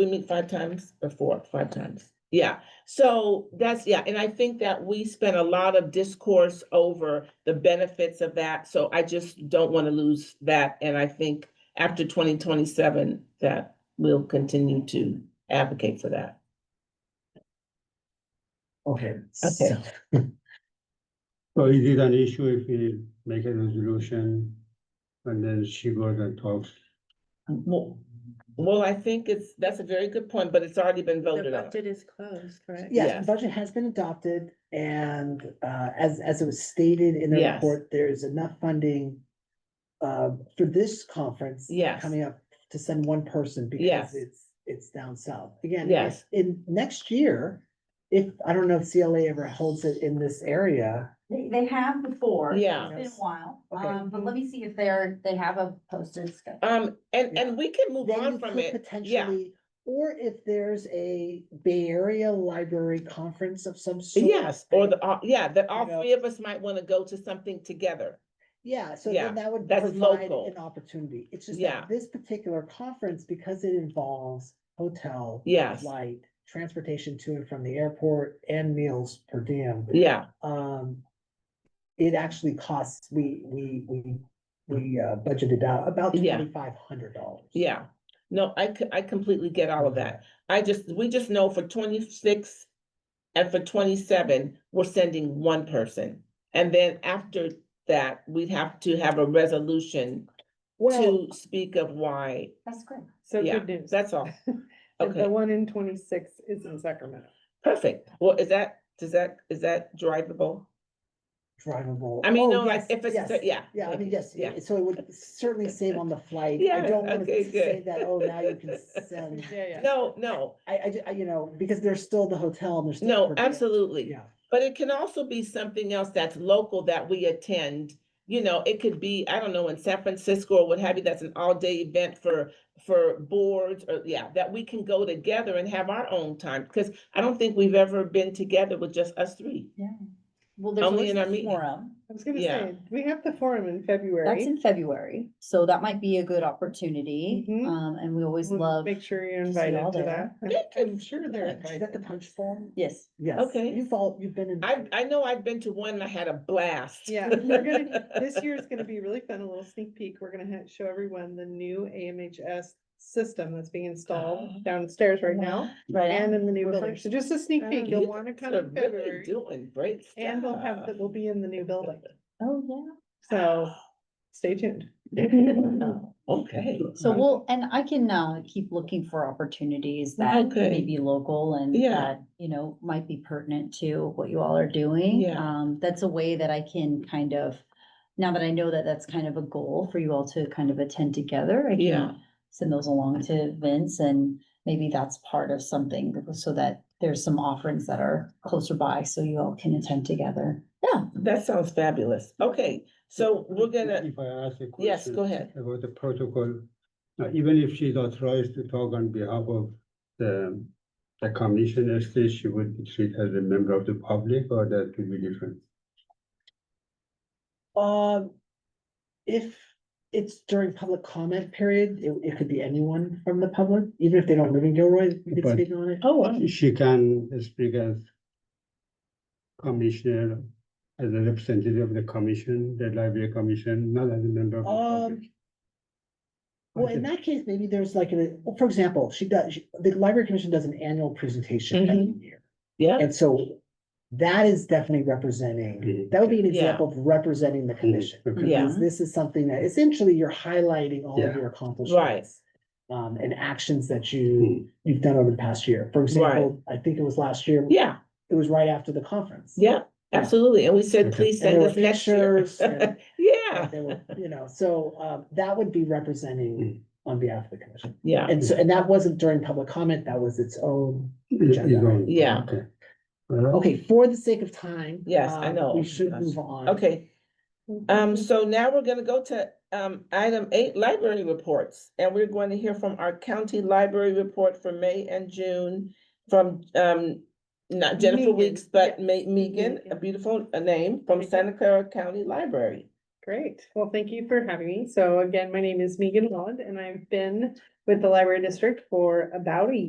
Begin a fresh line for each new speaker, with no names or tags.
We meet five times or four, five times. Yeah, so that's, yeah, and I think that we spent a lot of discourse over the benefits of that. So I just don't want to lose that. And I think after twenty twenty-seven, that we'll continue to advocate for that.
Okay.
Okay.
hmm. So is it an issue if we make a resolution and then she goes and talks?
Well, well, I think it's, that's a very good point, but it's already been
The
voted on.
budget is closed, correct?
Yeah,
Yes.
the budget has been adopted and uh as as it was stated in the
Yes.
report, there is enough funding. Uh for this conference.
Yes.
Coming up to send one person
Yes.
because it's it's down south. Again,
Yes.
yes, in next year. If, I don't know if CLA ever holds it in this area,
They, they have before.
Yeah.
It's been a while,
Okay.
um, but let me see if they're, they have a posted schedule.
Um, and, and we can move
then you
on from
could
it. Yeah,
potentially. Or if there's a Bay Area Library Conference of some sort.
yes, or the, all- yeah, that all
You know.
three of us might want to go to something together.
Yeah, so
Yeah,
then that would
that's
provide
local.
an opportunity. It's just
Yeah.
that this particular conference, because it involves hotel.
Yes.
Flight, transportation to and from the airport and meals per diem.
Yeah,
Um, it actually costs, we, we, we, we uh, budgeted out about
Yeah.
twenty-five hundred dollars.
yeah. No, I c- I completely get all of that. I just, we just know for twenty-six and for twenty-seven, we're sending one person. And then after that, we'd have to have a resolution
Well,
to speak of why.
That's great.
So
Yeah,
good news.
That's all.
The-
Okay.
The one in twenty-six is in Sacramento.
Perfect. Well, is that, does that, is that drivable?
drivable.
I mean,
Oh,
no, like
yes,
if it's,
yes.
yeah.
Yeah, I
thank
mean,
you.
yes,
Yeah,
yeah, so it would certainly save on the flight. I
Yes,
don't want
okay,
to say
good.
that, oh, now you can send.
Yeah, yeah.
no, no,
I, I, ju- I- you know, because there's still the hotel and there's. still
no,
per diem.
absolutely.
Yeah,
But it can also be something else that's local that we attend. You know, it could be, I don't know, in San Francisco or what have you, that's an all-day event for, for boards or, yeah, that we can go together and have our own time. Because I don't think we've ever been together with just us three.
Yeah. Well, there's
Only
always
in our
the
meeting.
forum.
I was gonna
Yeah.
say, we have the forum in
That's
February.
in February, so that might be a good opportunity.
Mhm.
Um, and we always
We'll
love,
Make sure you're
to see y'all
invited to that.
there.
I'm- I'm sure they're
Is that the
invited.
punch form?
yes,
Yes.
Okay.
You've all, you've been in.
I, I know I've been to one and I had a blast.
Yeah, we're gonna, this year's gonna be really fun, a little sneak peek. We're gonna ha- show everyone the new AMHS system that's being installed downstairs right now
right.
and in the new
Oh. We're
building.
first.
So just a sneak peek,
You
you'll wanna
guys
come
are
in
really
February.
Doing great stuff.
And we'll have, the- we'll be in the new building,
Oh, yeah.
so stay tuned.
Okay,
So we'll, and I can uh keep looking for opportunities that
Okay.
may be local and
Yeah.
that, you know, might be pertinent to what you all are doing.
Yeah.
Um, that's a way that I can kind of, now that I know that that's kind of a goal for you all to kind of attend together, I
Yeah.
can send those along to Vince and maybe that's part of something so that there's some offerings that are closer by, so you all can attend together. Yeah.
that sounds fabulous. Okay, so we're gonna,
If I ask a question.
yes, go ahead.
About the protocol, now even if she's authorized to talk on behalf of the, the commission, as such, she would be treated as a member of the public or that could be different?
Um, if it's during public comment period, it, it could be anyone from the public, even if they don't live in Gilroy, you could
But-
speak on it.
Oh,
She can speak as commissioner, as a representative of the commission, the library commission, not as a member of the public.
Um, Well, in that case, maybe there's like, a well, for example, she does, she- the library commission does an annual presentation every year.
Mm-hmm. yeah,
And so that is definitely representing,
Mhm.
that would be an
Yeah.
example of representing the commission.
Okay.
Yeah.
Because This is something that essentially you're highlighting all of
Yeah.
your accomplishments. Um, and actions that
Mm,
you, you've done over the past year. For example, I think it was last year,
yeah,
it was right after the conference.
yeah, absolutely. And we said,
Okay.
please
And there
send
were
us next year.
pictures and-
Yeah,
and there were- You know, so, um, that would be representing on behalf of the commission.
yeah,
And so, and that wasn't during public comment, that was its own.
Mm. Yeah.
Yeah.
Okay. Well,
Okay, for the sake of time.
Yes, I
um,
know.
We should
Yes.
move on.
okay.
Mm-hmm.
Um, so now we're gonna go to, um, item eight, library reports. And we're going to hear from our county library report for May and June from, um, not Jennifer
Megan,
Weeks, but
yeah.
Ma- Megan, a
Megan.
beautiful uh, name, from
Megan.
Santa Clara County Library.
Great. Well, thank you for having me. So again, my name is Megan Holland and I've been with the library district for about a